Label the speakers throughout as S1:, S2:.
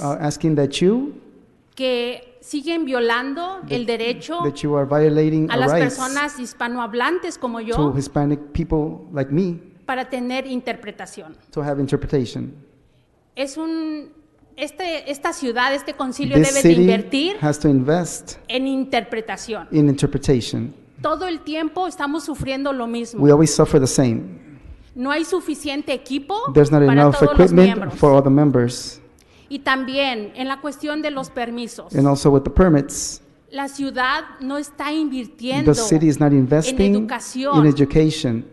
S1: uh, asking that you,
S2: que siguen violando el derecho
S1: that you are violating
S2: a
S1: our
S2: las
S1: rights
S2: personas hispanohablantes como
S1: to
S2: yo
S1: Hispanic people like me
S2: para tener interpretación.
S1: to have interpretation.
S2: Es un este esta ciudad, este concilio
S1: This
S2: debe de
S1: city
S2: invertir
S1: has to invest
S2: en interpretación.
S1: in interpretation.
S2: Todo el tiempo estamos sufriendo lo mismo.
S1: We always suffer the same.
S2: No hay suficiente equipo
S1: There's not
S2: para
S1: enough
S2: todos los
S1: equipment
S2: miembros.
S1: for all the members.
S2: Y también en la cuestión de los permisos.
S1: And also with the permits,
S2: La ciudad no está invirtiendo
S1: the city is not investing
S2: educación.
S1: in education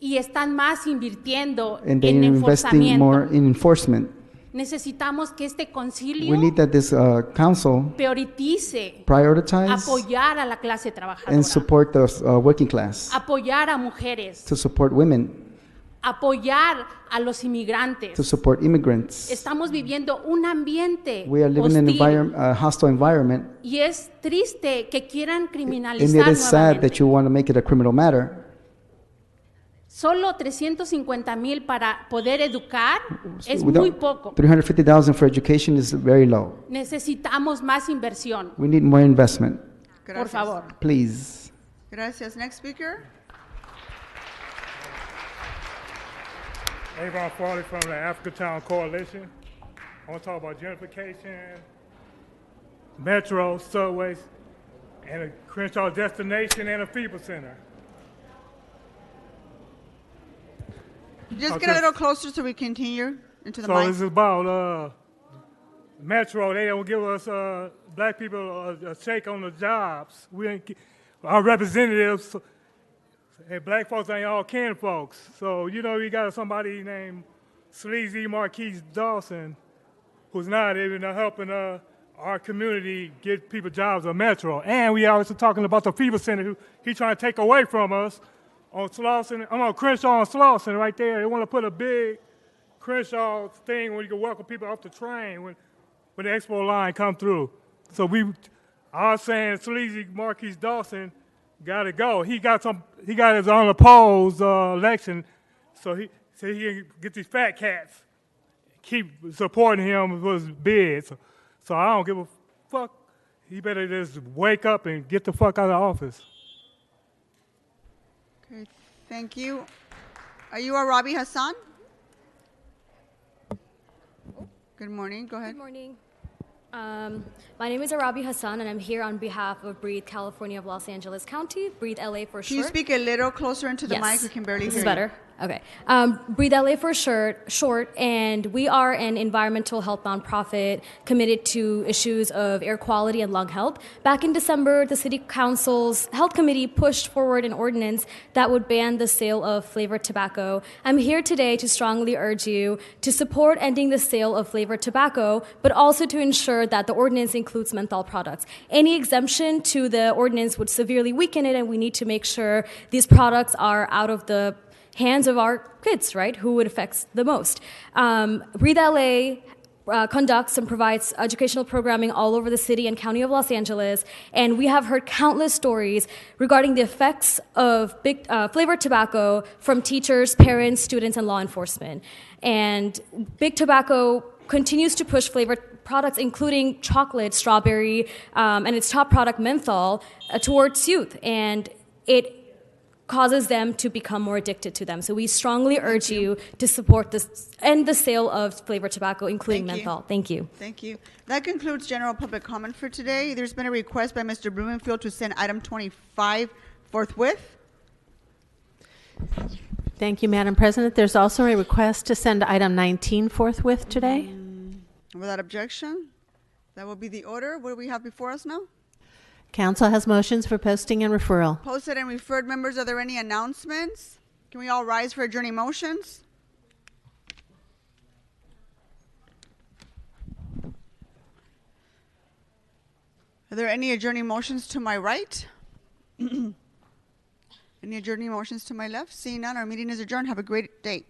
S2: y están más invirtiendo
S1: and they
S2: en
S1: are investing
S2: enforzamiento.
S1: more in enforcement.
S2: Necesitamos que este concilio
S1: We need that this uh, council
S2: prioritice
S1: prioritize
S2: apoyar a la clase
S1: and
S2: trabajadora,
S1: support the uh, working class,
S2: apoyar a mujeres,
S1: to support women,
S2: apoyar a los
S1: to
S2: inmigrantes.
S1: support immigrants.
S2: Estamos viviendo un ambiente
S1: We are living in an
S2: hostil
S1: environ- a hostile environment,
S2: y es triste que quieran
S1: and
S2: criminalizar
S1: it is sad that
S2: nuevamente.
S1: you want to make it a criminal matter.
S2: Solo 350 mil para poder educar es
S1: We don't-
S2: muy poco.
S1: 350,000 for education is very low.
S2: Necesitamos más inversión,
S1: We need more investment,
S2: por
S3: Gracias.
S2: favor.
S1: please.
S3: Gracias. Next speaker.
S4: Avon Farley from the Africatown Coalition. I want to talk about gentrification, metro, subways, and a Crenshaw destination and a FIBA center.
S3: Just get
S4: Okay.
S3: a little closer so we continue into the
S4: so
S3: mic.
S4: this is about uh, metro. They don't give us uh, black people a, a shake on the jobs. We ain't, get- our representatives and black folks ain't all kin folks. So you know you got somebody named Sleazy Marquise Dawson, who's not even helping uh, our community get people jobs on Metro. And we also talking about the fever center who he trying to take away from us on Slauson. I'm on Crenshaw and Slauson right there. They want to put a big Crenshaw thing where you can welcome people off the train when, when the expo line come through. So we, I was saying sleazy Marquise Dawson got to go. He got some. He got his unopposed uh, election, so he so he can get these fat cats keep supporting him with his bids. So I don't give a fuck. He better just wake up and get the fuck out of office.
S3: Okay, thank you. Are you a Robbie Hassan? Good morning. Go ahead.
S5: Good morning. Um, my name is Arabi Hassan, and I'm here on behalf of Breathe California of Los Angeles County, Breathe LA
S3: Can
S5: for short.
S3: you speak a little closer into the mic? We can barely
S5: this
S3: hear
S5: is
S3: you.
S5: better. Okay. Um, Breathe LA for short, short, and we are an environmental health nonprofit committed to issues of air quality and lung health. Back in December, the City Council's Health Committee pushed forward an ordinance that would ban the sale of flavored tobacco. I'm here today to strongly urge you to support ending the sale of flavored tobacco, but also to ensure that the ordinance includes menthol products. Any exemption to the ordinance would severely weaken it, and we need to make sure these products are out of the hands of our kids, right? Who it affects the most. Um, Breathe LA. Uh, conducts and provides educational programming all over the city and county of Los Angeles, and we have heard countless stories regarding the effects of big uh, flavored tobacco from teachers, parents, students, and law enforcement. And big tobacco continues to push flavored products, including chocolate, strawberry, um, and its top product menthol, uh, towards youth, and it causes them to become more addicted to them. So we strongly urge you to support this and the sale of flavored tobacco, including
S3: Thank you.
S5: menthol. Thank you.
S3: Thank you. That concludes general public comment for today. There's been a request by Mr. Blumenfield to send item 25 forthwith.
S6: Thank you, Madam President. There's also a request to send item 19 forthwith today.
S3: Without objection, that will be the order. What do we have before us now?
S6: Council has motions for posting and referral.
S3: Posted and referred members, are there any announcements? Can we all rise for adjourning motions? Are there any adjourning motions to my right? any adjourning motions to my left? Seeing none, our meeting is adjourned. Have a great day.